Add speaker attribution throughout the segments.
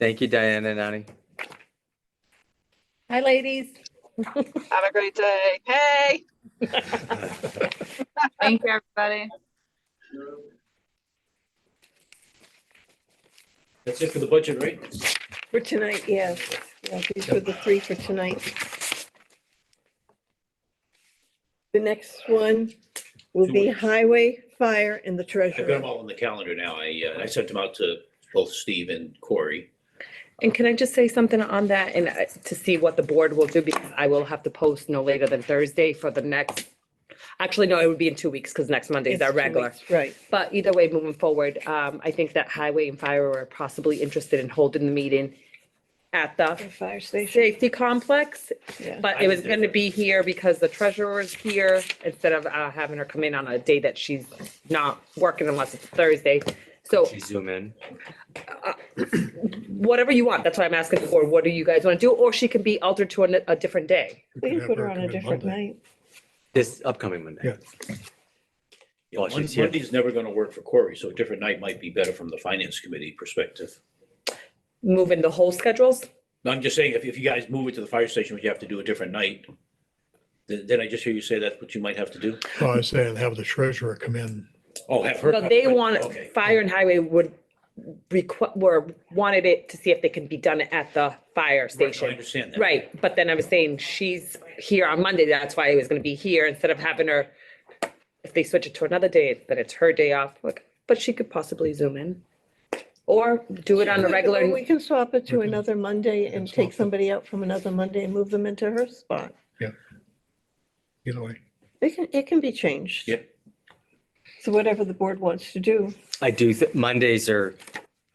Speaker 1: Thank you, Diana and Ani.
Speaker 2: Hi, ladies.
Speaker 3: Have a great day. Hey.
Speaker 4: Thank you, everybody.
Speaker 5: That's it for the budget, right?
Speaker 2: For tonight, yes. Yeah, These were the three for tonight. The next one will be highway, fire, and the
Speaker 5: I've got
Speaker 2: treasurer.
Speaker 5: them all on the calendar now. I, uh, I sent them out to both Steve and Corey.
Speaker 6: And can I just say something on that and uh, to see what the board will do? Because I will have to post no later than Thursday for the next. Actually, no, it would be in two weeks because next Monday is
Speaker 2: It's
Speaker 6: our
Speaker 2: two
Speaker 6: regular.
Speaker 2: weeks, Right.
Speaker 6: But either way, moving forward, um, I think that highway and fire are possibly interested in holding the meeting at the
Speaker 2: The Fire station.
Speaker 6: safety complex.
Speaker 2: Yeah.
Speaker 6: But it was going to be here because the treasurer is here instead of uh, having her come in on a day that she's not working unless it's Thursday. So
Speaker 1: Should we Zoom in.
Speaker 6: whatever you want. That's why I'm asking for. What do you guys want to do? Or she can be altered to a, a different day.
Speaker 2: We can put her on a different night.
Speaker 1: This upcoming Monday.
Speaker 5: Yeah,
Speaker 1: Well,
Speaker 5: Mon-
Speaker 1: she's here.
Speaker 5: Monday's never going to work for Corey, so a different night might be better from the finance committee perspective.
Speaker 6: Moving the whole schedules.
Speaker 5: No, I'm just saying, if, if you guys move it to the fire station, would you have to do a different night? Then, then I just hear you say that's what you might have to do?
Speaker 7: I was saying, have the treasurer come in.
Speaker 5: Oh, have her.
Speaker 6: No, they want,
Speaker 5: Okay.
Speaker 6: fire and highway would requ- were, wanted it to see if they can be done at the fire
Speaker 5: Right, no, I
Speaker 6: station.
Speaker 5: understand that.
Speaker 6: Right. But then I was saying she's here on Monday. That's why I was going to be here instead of having her. If they switch it to another day, then it's her day off. Like, but she could possibly zoom in. Or do it on a
Speaker 2: Or
Speaker 6: regular,
Speaker 2: We can swap it to
Speaker 7: Mm-hmm. We can-
Speaker 2: another Monday and
Speaker 7: Can swap
Speaker 2: take
Speaker 7: it.
Speaker 2: somebody out from another Monday and move them into her spot.
Speaker 7: You know, like,
Speaker 2: It can, it can be changed.
Speaker 5: Yep.
Speaker 2: So whatever the board wants to do.
Speaker 1: I do, th- Mondays are,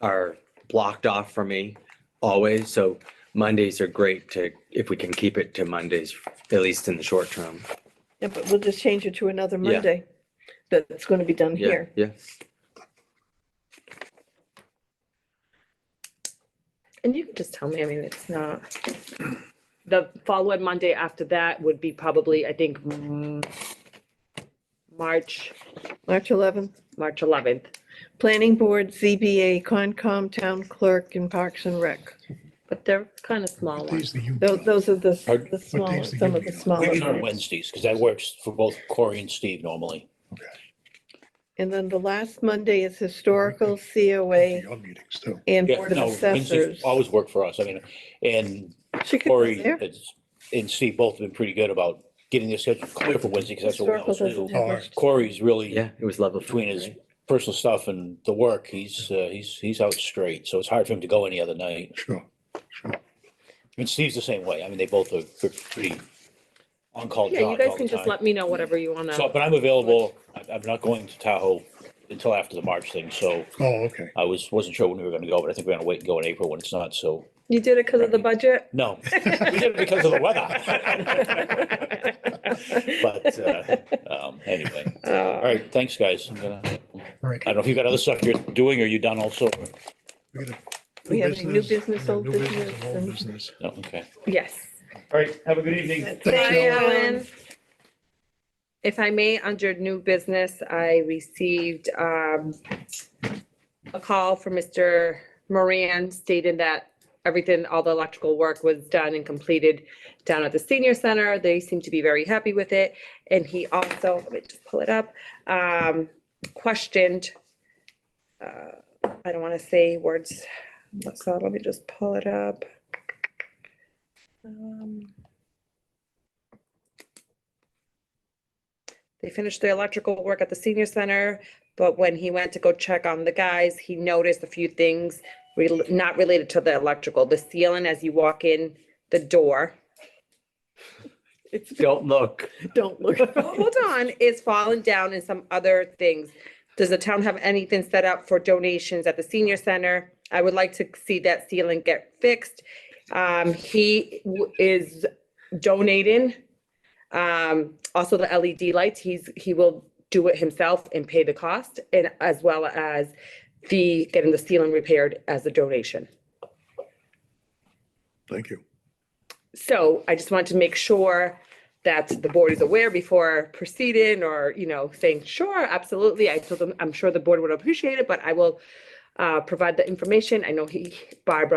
Speaker 1: are blocked off for me always, so Mondays are great to, if we can keep it to Mondays, at least in the short term.
Speaker 2: Yeah, but we'll just change it to another
Speaker 1: Yeah.
Speaker 2: Monday. That's going to be done
Speaker 1: Yeah,
Speaker 2: here.
Speaker 1: yeah.
Speaker 6: and you can just tell me, I mean, it's not. The following Monday after that would be probably, I think, mm, March,
Speaker 2: March 11th.
Speaker 6: March 11th.
Speaker 2: Planning Board, ZBA, Concom, Town Clerk, and Parks and Rec.
Speaker 6: But they're kind of small
Speaker 7: what
Speaker 6: ones.
Speaker 7: days do you?
Speaker 2: Those, those are the,
Speaker 5: Pardon?
Speaker 2: the smaller,
Speaker 7: days do you
Speaker 2: some of the
Speaker 7: meet on?
Speaker 2: smaller.
Speaker 5: Maybe on
Speaker 2: ones.
Speaker 5: Wednesdays, because that works for both Corey and Steve normally.
Speaker 2: And then the last Monday is historical, COA,
Speaker 7: Your meetings too.
Speaker 2: and
Speaker 5: Yeah,
Speaker 2: Board of
Speaker 5: no, Wednesdays
Speaker 2: Assessors.
Speaker 5: Always work for us. I mean, and
Speaker 2: She could be
Speaker 5: Corey
Speaker 2: there.
Speaker 5: has- and Steve both have been pretty good about getting their schedule clear for Wednesday, because that's what we
Speaker 2: Historical
Speaker 5: always
Speaker 2: doesn't
Speaker 5: do.
Speaker 2: have
Speaker 7: Alright.
Speaker 2: much.
Speaker 5: Corey's really,
Speaker 1: Yeah, it was level.
Speaker 5: between his personal stuff and the work, he's, uh, he's, he's out straight, so it's hard for him to go any other night.
Speaker 7: Sure.
Speaker 5: And Steve's the same way. I mean, they both are pre- pretty on-call jobs
Speaker 6: Yeah, you
Speaker 5: all
Speaker 6: guys
Speaker 5: the
Speaker 6: can just
Speaker 5: time.
Speaker 6: let me know whatever you want
Speaker 5: So,
Speaker 6: to.
Speaker 5: but I'm available. I- I'm not going to Tahoe until after the March thing, so
Speaker 7: Oh, okay.
Speaker 5: I was, wasn't sure when we were gonna go, but I think we're gonna wait and go in April when it's not, so,
Speaker 6: You did it because of the budget?
Speaker 5: no. We did it because of the weather. But, uh, um, anyway.
Speaker 6: Oh,
Speaker 5: All right, thanks, guys. I'm gonna, I
Speaker 7: All right.
Speaker 5: don't know if you got other stuff you're doing or you done also?
Speaker 7: We got a
Speaker 2: We have a new business,
Speaker 7: and a
Speaker 2: old
Speaker 7: new
Speaker 2: business.
Speaker 7: and Old
Speaker 2: and-
Speaker 7: business.
Speaker 5: No, okay.
Speaker 6: Yes.
Speaker 5: All right, have a good evening.
Speaker 2: Thank
Speaker 6: Hi,
Speaker 2: you.
Speaker 6: Ellen. If I may, under new business, I received um, a call from Mr. Moran stating that everything, all the electrical work was done and completed down at the senior center. They seem to be very happy with it. And he also, let me just pull it up, um, questioned, uh, I don't want to say words, so let me just pull it up. Um, They finished the electrical work at the senior center, but when he went to go check on the guys, he noticed a few things rel- not related to the electrical, the ceiling as you walk in the door.
Speaker 2: It's,
Speaker 1: Don't look.
Speaker 2: don't look.
Speaker 6: Hold on, is falling down and some other things. Does the town have anything set up for donations at the senior center? I would like to see that ceiling get fixed. Um, he w- is donating. Um, also the LED lights, he's, he will do it himself and pay the cost and as well as the, getting the ceiling repaired as a donation.
Speaker 7: Thank you.
Speaker 6: So I just wanted to make sure that the board is aware before proceeding or, you know, saying, sure, absolutely. I told them, I'm sure the board would appreciate it, but I will uh, provide the information. I know he, Barbara